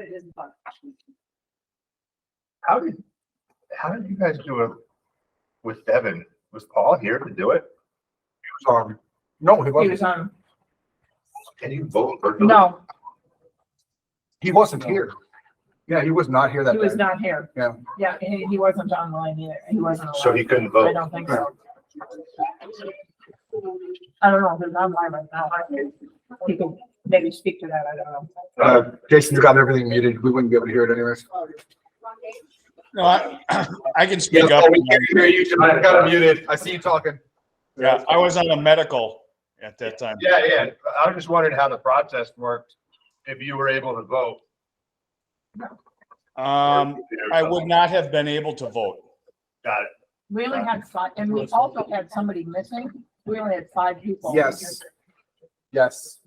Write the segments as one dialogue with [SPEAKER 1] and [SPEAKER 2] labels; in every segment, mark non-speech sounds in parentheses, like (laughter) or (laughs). [SPEAKER 1] it is bugged.
[SPEAKER 2] How did, how did you guys do it with Devin? Was Paul here to do it?
[SPEAKER 3] was on, no, he
[SPEAKER 4] He was
[SPEAKER 3] wasn't,
[SPEAKER 4] on,
[SPEAKER 2] Can you vote virtually?
[SPEAKER 4] no,
[SPEAKER 3] he wasn't here. Yeah, he was not here that
[SPEAKER 4] he was
[SPEAKER 3] day.
[SPEAKER 4] not here.
[SPEAKER 3] Yeah.
[SPEAKER 4] Yeah, and he wasn't online either. He wasn't.
[SPEAKER 2] So
[SPEAKER 4] allowed.
[SPEAKER 2] he couldn't
[SPEAKER 4] I
[SPEAKER 2] vote.
[SPEAKER 4] don't think so. I don't know, if it's online right now. He can maybe speak to that, I don't know.
[SPEAKER 3] Uh, Jason's got everything muted. We wouldn't be able to hear it anyways.
[SPEAKER 5] No, I, (clears throat) I can speak up.
[SPEAKER 3] oh, hear you.
[SPEAKER 2] I got him
[SPEAKER 3] muted. I see you talking.
[SPEAKER 5] Yeah, I was on a medical at that time.
[SPEAKER 2] Yeah, yeah. I was just wondering how the process worked, if you were able to vote.
[SPEAKER 5] Um, I would not have been able to vote.
[SPEAKER 2] Got it.
[SPEAKER 4] We only had five, and we also had somebody missing. We only had five people.
[SPEAKER 3] Yes. Yes,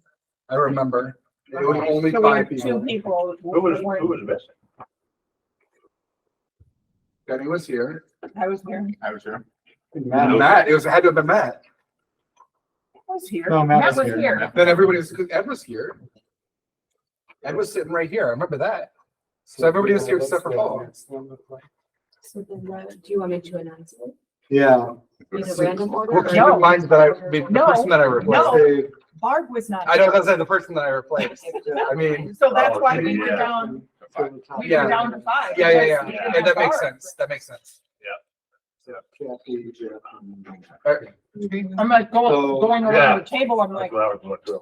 [SPEAKER 3] I remember. It was only
[SPEAKER 4] So we
[SPEAKER 3] five
[SPEAKER 4] had Two
[SPEAKER 3] people.
[SPEAKER 4] people.
[SPEAKER 2] Who was,
[SPEAKER 4] who
[SPEAKER 2] who
[SPEAKER 4] weren't-
[SPEAKER 2] was missing?
[SPEAKER 3] Benny was here.
[SPEAKER 4] I was here.
[SPEAKER 3] I was here. Matt, it was, it had to have been Matt.
[SPEAKER 4] I was here.
[SPEAKER 6] No, Matt was here.
[SPEAKER 3] Then everybody was, 'cause Ed was here. Ed was sitting right here. I remember that. So everybody was here except for Paul.
[SPEAKER 7] So then, uh, do you want me to announce it?
[SPEAKER 6] Yeah.
[SPEAKER 7] In a random order?
[SPEAKER 3] Well,
[SPEAKER 7] or-
[SPEAKER 3] keep in mind that I, the
[SPEAKER 4] No.
[SPEAKER 3] person that I replaced,
[SPEAKER 4] No. Barb was not.
[SPEAKER 3] I don't, I said the person that I replaced. I mean,
[SPEAKER 4] So that's why we
[SPEAKER 2] Oh,
[SPEAKER 4] were
[SPEAKER 2] yeah.
[SPEAKER 4] down, we
[SPEAKER 3] Yeah.
[SPEAKER 4] were down to five.
[SPEAKER 3] yeah, yeah, yeah.
[SPEAKER 4] because we
[SPEAKER 2] Yeah.
[SPEAKER 4] didn't
[SPEAKER 3] And
[SPEAKER 4] have
[SPEAKER 3] that makes
[SPEAKER 4] Barb.
[SPEAKER 3] sense. That makes sense.
[SPEAKER 6] So
[SPEAKER 3] All right.
[SPEAKER 4] I'm like going,
[SPEAKER 6] So-
[SPEAKER 4] going
[SPEAKER 2] Yeah.
[SPEAKER 4] around the table, I'm like.
[SPEAKER 2] That's what I was going through.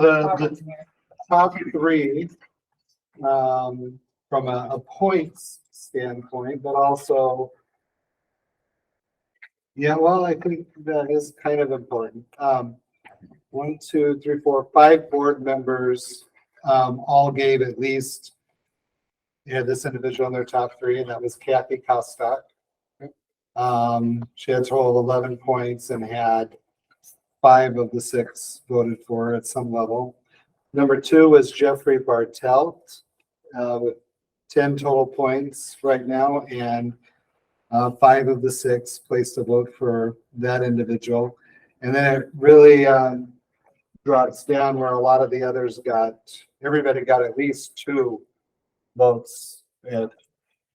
[SPEAKER 6] the,
[SPEAKER 4] Barb
[SPEAKER 6] the
[SPEAKER 4] wasn't here.
[SPEAKER 6] top three, um, from a, a points standpoint, but also. Yeah, well, I think that is kind of important. Um, one, two, three, four, five board members, um, all gave at least. Yeah, this individual in their top three, and that was Kathy Costock. Um, she had a total of eleven points and had five of the six voted for at some level. Number two was Jeffrey Bartelt, uh, with ten total points right now, and uh, five of the six placed a vote for that individual. And then it really, um, drops down where a lot of the others got, everybody got at least two votes. And,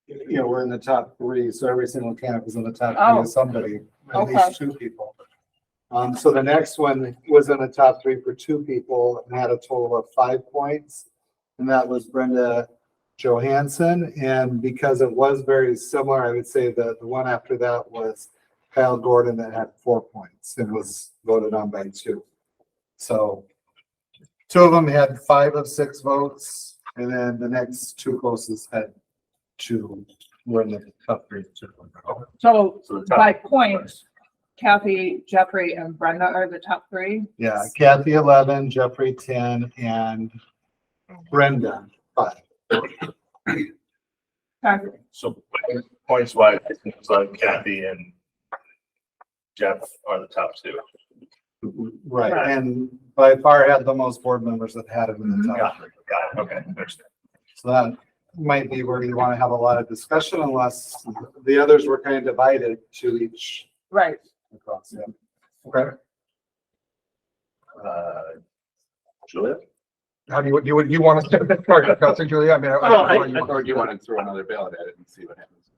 [SPEAKER 6] you know, we're in the top three, so every single candidate was in the top three
[SPEAKER 4] Oh.
[SPEAKER 6] of somebody, at
[SPEAKER 4] Okay.
[SPEAKER 6] least two people. Um, so the next one was in the top three for two people and had a total of five points. And that was Brenda Johansson. And because it was very similar, I would say that the one after that was Kyle Gordon that had four points and was voted on by two. So two of them had five of six votes, and then the next two closest had two, were in the top three. two.
[SPEAKER 4] So
[SPEAKER 2] So the top-
[SPEAKER 4] by points, Kathy, Jeffrey and Brenda are the top three.
[SPEAKER 6] Yeah, Kathy eleven, Jeffrey ten, and Brenda five.
[SPEAKER 4] Okay.
[SPEAKER 2] So points wise, it seems like Kathy and Jeff are the top two.
[SPEAKER 6] Right, and by far had the most board members that had it in
[SPEAKER 4] Mm-hmm.
[SPEAKER 6] the top.
[SPEAKER 2] Got it, got it, okay. understood.
[SPEAKER 6] So that might be where you want to have a lot of discussion unless the others were kind of divided to each
[SPEAKER 4] Right.
[SPEAKER 6] across. yeah.
[SPEAKER 3] Okay.
[SPEAKER 2] Uh, Julia?
[SPEAKER 3] How do you, do you, you want us (laughs) to, sorry, Counselor Julia, I mean. I- I-
[SPEAKER 8] Well, I,
[SPEAKER 3] you-
[SPEAKER 8] I- or do you want to throw another ballot at it and see what happens?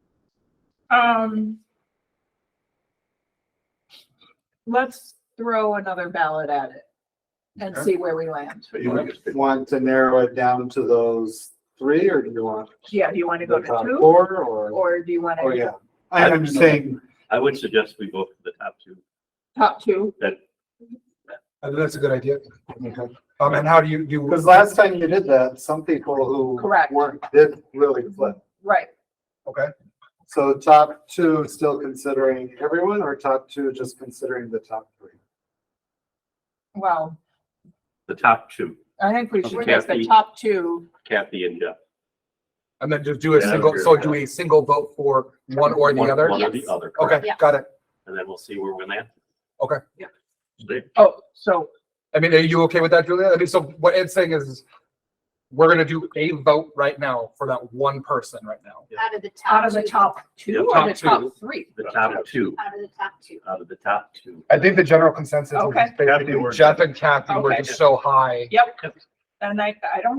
[SPEAKER 4] Um. Let's throw another ballot at it and see where we land.
[SPEAKER 2] So you want to just-
[SPEAKER 6] Want to narrow it down to those three or do you want?
[SPEAKER 4] Yeah, do you want to go
[SPEAKER 6] the
[SPEAKER 4] to
[SPEAKER 6] top
[SPEAKER 4] two
[SPEAKER 6] Four or,
[SPEAKER 4] or do you want
[SPEAKER 6] oh
[SPEAKER 4] to
[SPEAKER 6] yeah, I- I'm just saying,
[SPEAKER 8] I would suggest we vote for the top two.
[SPEAKER 4] top two?
[SPEAKER 3] I think that's a good idea. Um, and how do you, do? you-
[SPEAKER 6] because last time you did that, some people who.
[SPEAKER 4] Correct.
[SPEAKER 6] Weren't, did really flip.
[SPEAKER 4] Right.
[SPEAKER 3] Okay,
[SPEAKER 6] So top two still considering everyone or top two just considering the top three?
[SPEAKER 4] Well,
[SPEAKER 8] The top two,
[SPEAKER 4] I think we should make the
[SPEAKER 8] Kathy.
[SPEAKER 4] top two.
[SPEAKER 8] Kathy and uh, Jeff.
[SPEAKER 3] and then just do a
[SPEAKER 8] Yeah, I
[SPEAKER 3] single,
[SPEAKER 8] agree
[SPEAKER 3] so
[SPEAKER 8] with
[SPEAKER 3] do
[SPEAKER 8] that.
[SPEAKER 3] a single vote for one or the
[SPEAKER 8] One-
[SPEAKER 3] other?
[SPEAKER 8] One or the
[SPEAKER 7] Yes.
[SPEAKER 8] other. correct.
[SPEAKER 3] Okay,
[SPEAKER 7] Yeah.
[SPEAKER 3] got it.
[SPEAKER 8] And then we'll see where we land.
[SPEAKER 3] Okay.
[SPEAKER 4] Yeah.
[SPEAKER 8] There.
[SPEAKER 4] Oh, so
[SPEAKER 3] I mean, are you okay with that, Julia? I mean, so what Ed's saying is, is we're gonna do a vote right now for that one person right now.
[SPEAKER 7] Out of the top.
[SPEAKER 4] out of the
[SPEAKER 7] two.
[SPEAKER 4] top
[SPEAKER 8] Yeah,
[SPEAKER 4] two or
[SPEAKER 3] top
[SPEAKER 4] the
[SPEAKER 3] two.
[SPEAKER 4] top three?
[SPEAKER 8] The top two,
[SPEAKER 7] Out of the top two.
[SPEAKER 8] out of the top two.
[SPEAKER 3] I think the general consensus
[SPEAKER 4] Okay.
[SPEAKER 3] is basically Jeff and Kathy were
[SPEAKER 4] Okay.
[SPEAKER 3] just so high.
[SPEAKER 4] Yep. And I, I don't